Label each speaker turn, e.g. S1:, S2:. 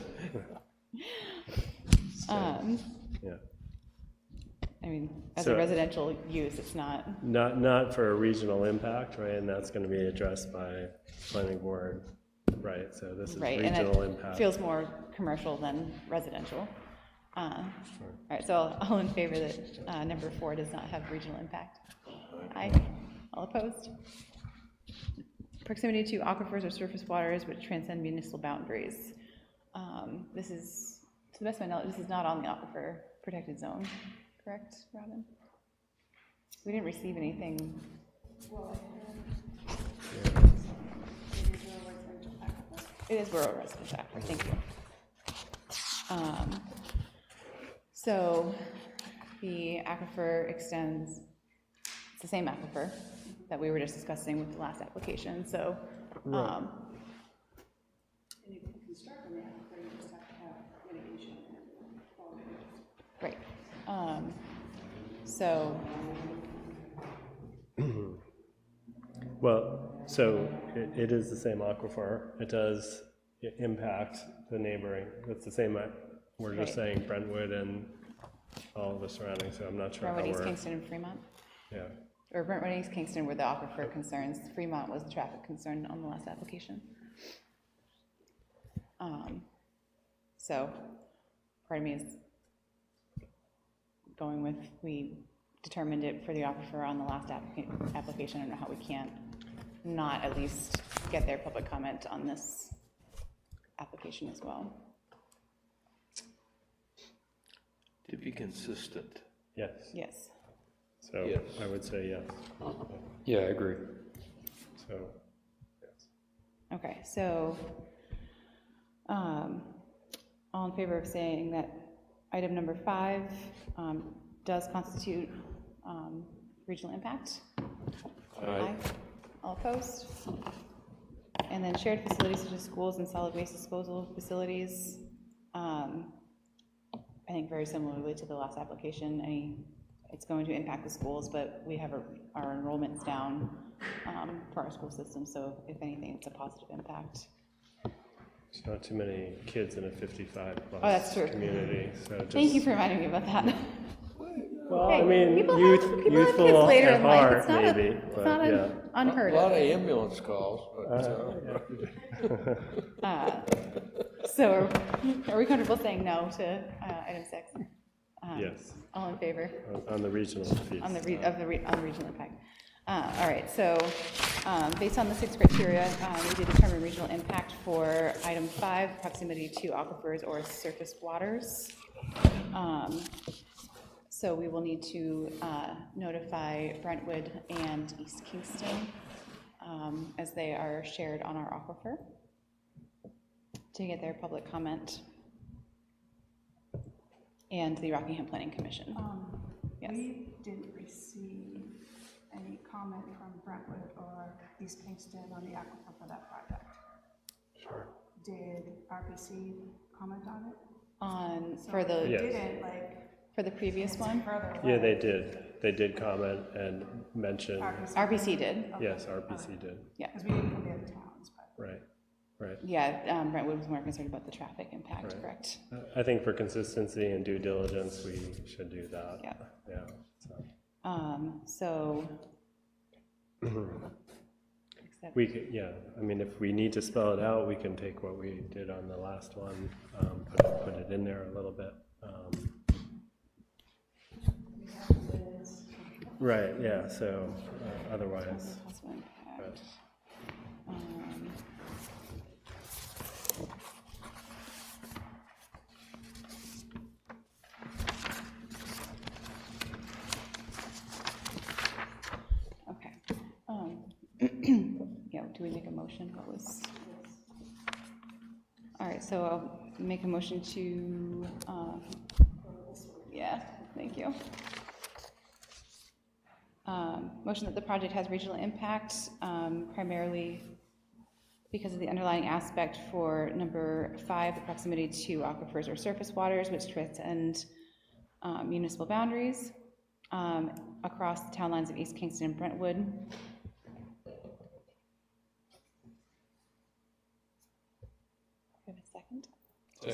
S1: Um,
S2: yeah.
S1: I mean, as a
S2: So-
S1: residential use, it's not,
S2: Not, not for a regional impact, right, and that's gonna be addressed by planning board, right, so this is
S1: right, and
S2: regional impact.
S1: it feels more commercial than residential. Uh, All right, so all- all in favor that uh, number four does not have regional impact? Aye. All opposed? Proximity to aquifers or surface waters which transcend municipal boundaries. Um, This is, to the best of my knowledge, this is not on the aquifer protected zone, correct, Robin? We didn't receive anything It is rural residential aquifer, thank you. Um, So the aquifer extends, it's the same aquifer that we were just discussing with the last application, so. um, Right. um, So,
S2: Well, so it, it is the same aquifer, it does i- impact the neighboring, it's the same, uh, we're just
S1: Right.
S2: saying Brentwood and all the surrounding, so I'm not sure how
S1: Brentwood, East
S2: we're,
S1: Kingston, and Fremont?
S2: yeah.
S1: or Brentwood East Kingston were the aquifer concerns. Fremont was the traffic concern on the last application. Um, So, part of me is going with, we determined it for the aquifer on the last applica- application. I don't know how we can't not at least get their public comment on this application as well.
S3: To be consistent.
S2: Yes,
S1: Yes.
S2: so
S3: Yes.
S2: I would say yes,
S4: Yeah, I agree.
S2: so,
S1: Okay, so, um, all in favor of saying that item number five um, does constitute um, regional impact? Aye. All opposed? And then shared facilities such as schools and solid waste disposal facilities, um, I think very similarly to the last application, any, it's going to impact the schools, but we have our- our enrollments down um, for our school system, so if anything, it's a positive impact.
S2: there's not too many kids in a
S1: Oh, that's
S2: 55-plus
S1: true.
S2: community, so just.
S1: Thank you for reminding me about that.
S2: Well,
S1: Hey,
S2: I mean,
S1: people have-
S2: youth,
S1: people have kids
S2: youthful
S1: later
S2: at
S1: in life. It's
S2: heart,
S1: not a-
S2: maybe,
S1: It's
S2: but
S1: not
S2: yeah.
S1: un- unheard
S3: A lot
S1: of.
S3: of ambulance calls, but uh,
S1: Uh, So are- are we comfortable saying no to uh, item six? Um,
S2: Yes,
S1: All in favor?
S2: on- on the regional piece.
S1: on the, re- of the, re- on the regional impact. Uh, All right, so um, based on the six criteria, um, we did determine regional impact for item five, proximity to aquifers or surface waters. Um, So we will need to uh, notify Brentwood and East Kingston um, as they are shared on our aquifer to get their public comment and the Rockingham Planning Commission. Yes.
S5: We didn't receive any comment from Brentwood or East Kingston on the aquifer for that project. Sure. Did RPC comment on it?
S1: On, for
S5: So if
S1: the,
S2: Yeah.
S5: they
S2: Yes.
S5: Didn't, like,
S1: for the previous one?
S5: further away.
S2: Yeah, they did, they did comment and mention,
S1: RBC did,
S2: yes, RPC did,
S5: Because we didn't come to the towns, but.
S2: right, right.
S1: yeah, um, Brentwood was more concerned about the traffic impact,
S2: Right.
S1: correct?
S2: I think for consistency and due diligence, we should do that.
S1: Yeah.
S2: Yeah, so,
S1: Um, so. Except-
S2: we, could- yeah, I mean, if we need to spell it out, we can take what we did on the last one, um, put put it in there a little bit. um. Right, yeah, so uh, otherwise.
S1: Possible impact. Um, Okay. um, Yeah, do we make a motion? What was? All right, so I'll make a motion to, um, yeah, thank you. Um, Motion that the project has regional impact um, primarily because of the underlying aspect for number five, the proximity to aquifers or surface waters which transcend um, municipal boundaries um, across the town lines of East Kingston and Brentwood.